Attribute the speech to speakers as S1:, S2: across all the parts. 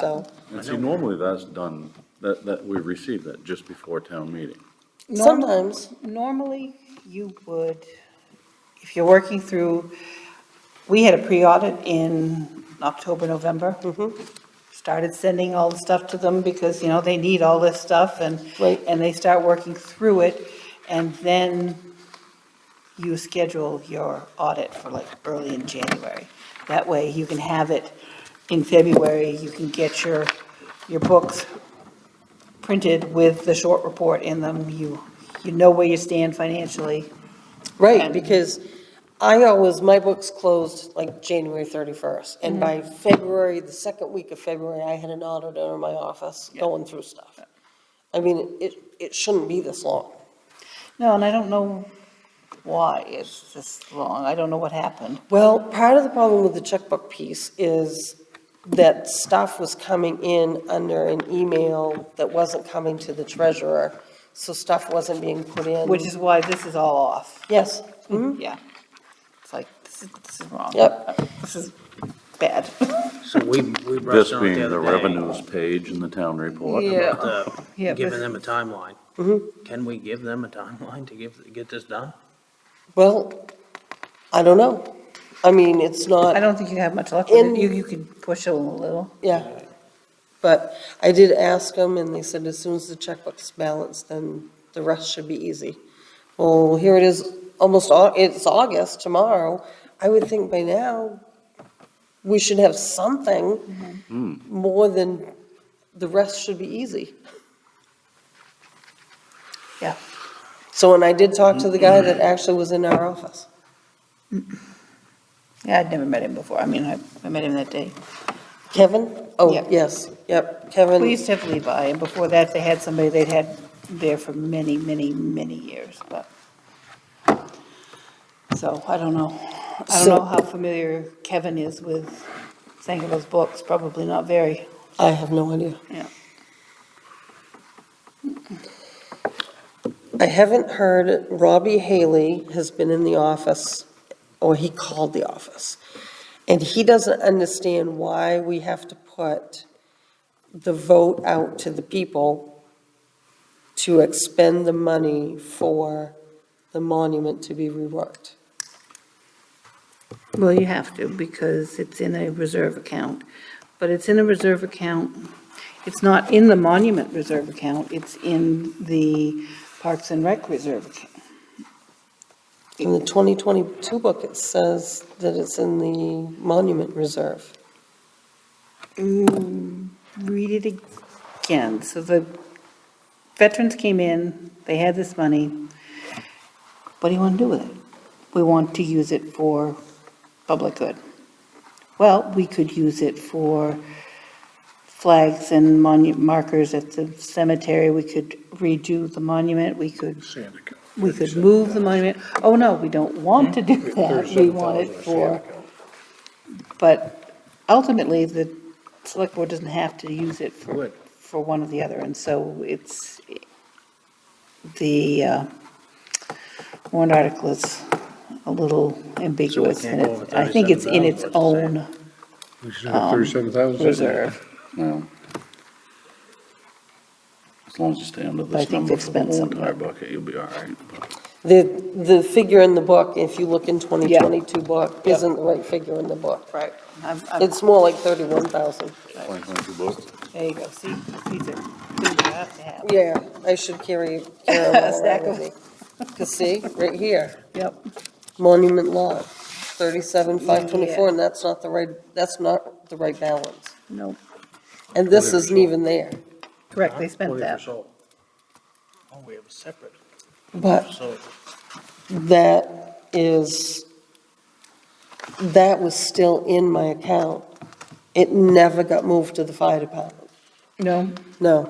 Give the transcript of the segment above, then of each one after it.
S1: so.
S2: And see, normally that's done, that, that we receive that just before town meeting.
S1: Sometimes.
S3: Normally, you would, if you're working through, we had a pre-audit in October, November. Started sending all the stuff to them because, you know, they need all this stuff and,
S1: Right.
S3: and they start working through it. And then you schedule your audit for like early in January. That way you can have it in February, you can get your, your books printed with the short report in them. You, you know where you stand financially.
S1: Right,
S3: And-
S1: because I always, my books closed like January 31st, and by February, the second week of February, I had an auditor in my office
S3: Yeah.
S1: going through stuff. I mean, it, it shouldn't be this long.
S3: No, and I don't know why it's this long. I don't know what happened.
S1: Well, part of the problem with the checkbook piece is that stuff was coming in under an email that wasn't coming to the treasurer, so stuff wasn't being put in.
S3: Which is why this is all off.
S1: Yes, Mm-hmm.
S3: Hmm? Yeah. It's like, this is, this is wrong.
S1: Yep.
S3: This is bad.
S4: So we, we
S2: This
S4: brushed on it
S2: being
S4: the
S2: the
S4: other day.
S2: revenues page in the town report.
S4: about the-
S3: Yeah,
S4: Giving
S3: but- Mm-hmm.
S4: them a timeline. Can we give them a timeline to give, get this done?
S1: well, I don't know. I mean, it's not.
S3: I don't think you have much luck with
S1: In-
S3: it. You, you can push it a little.
S1: Yeah, but I did ask them, and they said as soon as the checkbook's balanced, then the rest should be easy. Well, here it is, almost, Au- it's August tomorrow. I would think by now, we should have something more than, the rest should be easy.
S3: Yeah.
S1: So, and I did talk to the guy that actually was in our office.
S3: Yeah, I'd never met him before. I mean, I, I met him that day.
S1: Kevin? Oh,
S3: Yeah.
S1: yes, yep, Kevin.
S3: We used to have Levi, and before that, they had somebody they'd had there for many, many, many years, but. So I don't know. I don't
S1: So-
S3: know how familiar Kevin is with Sangerville's books, probably not very.
S1: I have no idea.
S3: Yeah.
S1: I haven't heard, Robbie Haley has been in the office, or he called the office, and he doesn't understand why we have to put the vote out to the people to expend the money for the monument to be reworked.
S3: Well, you have to, because it's in a reserve account, but it's in a reserve account. It's not in the monument reserve account, it's in the Parks and Rec reserve account.
S1: In the 2022 book, it says that it's in the monument reserve.
S3: Mm, Read it again. So the veterans came in, they had this money. What do you want to do with it? We want to use it for public good. Well, we could use it for flags and monu, markers at the cemetery. We could redo the monument. We could, we could move the monument. Oh, no, we don't want to do
S4: Mm-hmm.
S3: that. We want it for, but ultimately, the select board doesn't have to use it for,
S4: Right.
S3: for one or the other, and so it's, the uh, warrant article is a little ambiguous,
S4: can't
S3: and
S4: go over
S3: it- I think it's in its
S4: $37,000,
S3: own um,
S5: We should have thirty-seven thousand.
S3: reserve.
S2: No. As long as you stay under
S3: But I
S2: this
S3: think
S2: number
S3: they've
S2: for the
S3: spent
S2: whole
S3: some.
S2: entire bucket, you'll be all right.
S1: The, the figure in the book, if you look in 2022 book,
S3: Yeah.
S1: isn't the right figure in the book.
S3: Right. I'm- I'm-
S1: It's more like 31,000.
S2: Twenty twenty-two books.
S3: There you go, see, these are, these are have to have.
S1: Yeah, I should carry, carry them all
S3: Stack
S1: around with me. 'Cause see, right here,
S3: Yep.
S1: monument lot, thirty-seven, five twenty-four, and that's not the right, that's not the right balance.
S3: No,
S1: And this isn't even there,
S3: correct, they spent
S4: Forty for
S3: that.
S4: salt. Oh, we have a separate
S1: but
S4: salt.
S1: that is, that was still in my account. It never got moved to the fire department,
S3: No,
S1: no.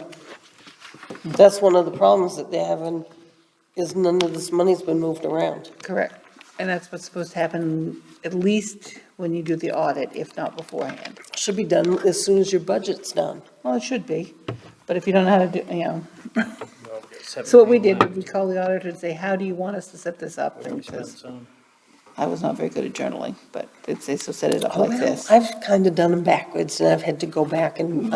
S1: That's one of the problems that they're having, is none of this money's been moved around.
S3: correct. And that's what's supposed to happen, at least when you do the audit, if not beforehand.
S1: Should be done as soon as your budget's done.
S3: Well, it should be, but if you don't know how to do, you know.
S4: Well, we got
S3: So what we did, was we
S4: 17,000.
S3: called the auditor and say, how do you want us to set this up? And
S4: We
S3: he
S4: spent
S3: says,
S4: some.
S3: I was not very good at journaling, but it's, they so set it up
S1: Oh, Well,
S3: like this.
S1: I've kind of done them backwards, and I've had to go back and